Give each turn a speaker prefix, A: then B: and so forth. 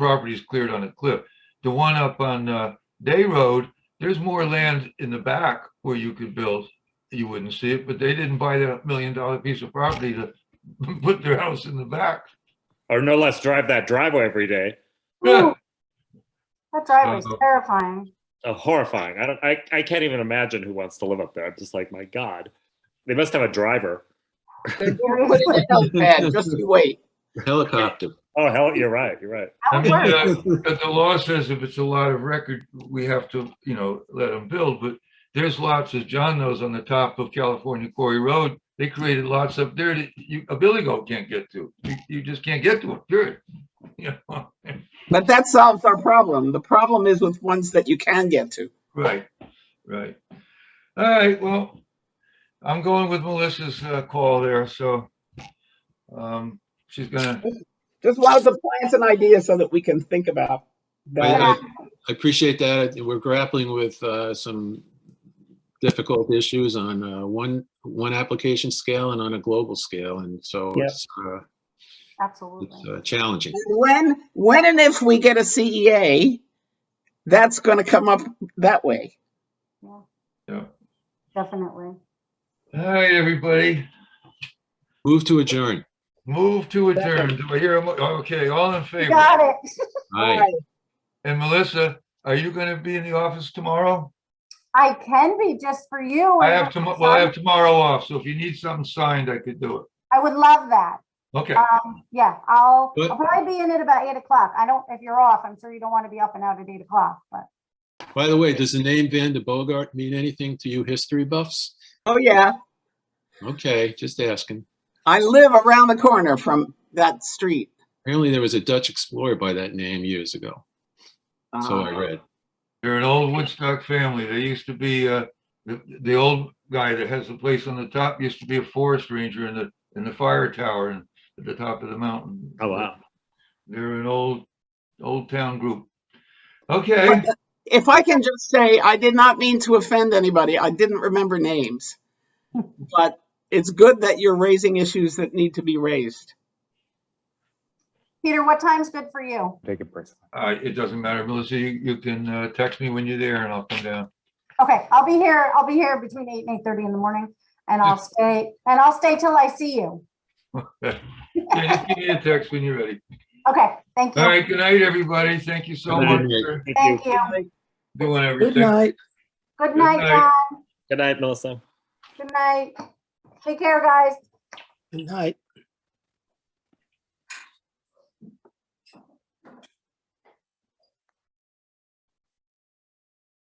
A: properties cleared on a cliff. The one up on uh, Day Road, there's more land in the back where you could build. You wouldn't see it, but they didn't buy that million dollar piece of property to put their house in the back.
B: or no less drive that driveway every day.
A: Yeah.
C: Ooh, That driveway's
A: Uh-oh.
C: terrifying.
B: Uh, horrifying. I don't. I, I can't even imagine who wants to live up there. I'm just like, my God, they must have a driver.
D: They're gonna put it in the notepad, just you wait.
E: Helicopter.
B: Oh hell, you're right. You're right.
C: That
A: I
C: would
A: mean,
C: work.
A: uh, but the law says if it's a lot of record, we have to, you know, let them build, but there's lots, as John knows, on the top of California Quarry Road. They created lots up there that you, a billy goat can't get to. You, you just can't get to it, period. You know,
D: But that solves our problem. The problem is with ones that you can get to.
A: Right, right. All right, well, I'm going with Melissa's uh, call there, so um, she's gonna,
D: Just lots of plans and ideas so that we can think about
E: I,
D: that.
E: I- I appreciate that. We're grappling with uh, some difficult issues on uh, one, one application scale and on a global scale. And so
D: Yeah.
E: it's, uh,
C: Absolutely.
E: it's uh, challenging.
D: When, when and if we get a CEA, that's gonna come up that way.
C: Yeah.
A: Yeah.
C: Definitely.
A: all right, everybody,
E: Move to adjourn.
A: move to adjourn. Do I hear, a mo- okay, all in
C: You
A: favor?
C: Got it.
E: Aye.
A: And Melissa, are you gonna be in the office tomorrow?
C: I can be just for you.
A: I
C: and
A: have
C: Oh, I'm
A: tomorrow, well, I have
C: sorry.
A: tomorrow off, so if you need something signed, I could do it.
C: I would love that.
A: Okay,
C: Um, yeah, I'll,
E: But-
C: I'll probably be in at about eight o'clock. I don't, if you're off, I'm sure you don't want to be up and out at eight o'clock, but
E: By the way, does the name Van de Bogart mean anything to you history buffs?
D: Oh, yeah.
E: Okay, just asking.
D: I live around the corner from that street.
E: Apparently there was a Dutch explorer by that name years ago. So I
D: Uh,
E: read.
A: they're an old Woodstock family. They used to be, uh, the, the old guy that has the place on the top used to be a forest ranger in the, in the fire tower and at the top of the mountain.
B: Oh wow.
A: They're an old, old town group. Okay,
D: Uh, But If I can just say, I did not mean to offend anybody. I didn't remember names. But it's good that you're raising issues that need to be raised.
C: Peter, what time's good for you?
F: Take it personally.
A: uh, it doesn't matter, Melissa, you, you can, uh, text me when you're there and I'll come down.
C: Okay, I'll be here, I'll be here between eight and eight thirty in the morning and I'll stay, and I'll stay till I see you.
A: Yeah, just give me a text when you're ready.
C: Okay, thank
A: All
C: you.
A: right, good night, everybody. Thank you so
B: Good
A: much
E: night.
A: for
B: Thank you.
C: Thank you.
A: doing everything.
G: Good night.
C: Good night,
A: night.
C: guys.
B: Good night, Melissa.
C: Good night. Take care, guys.
G: Good night.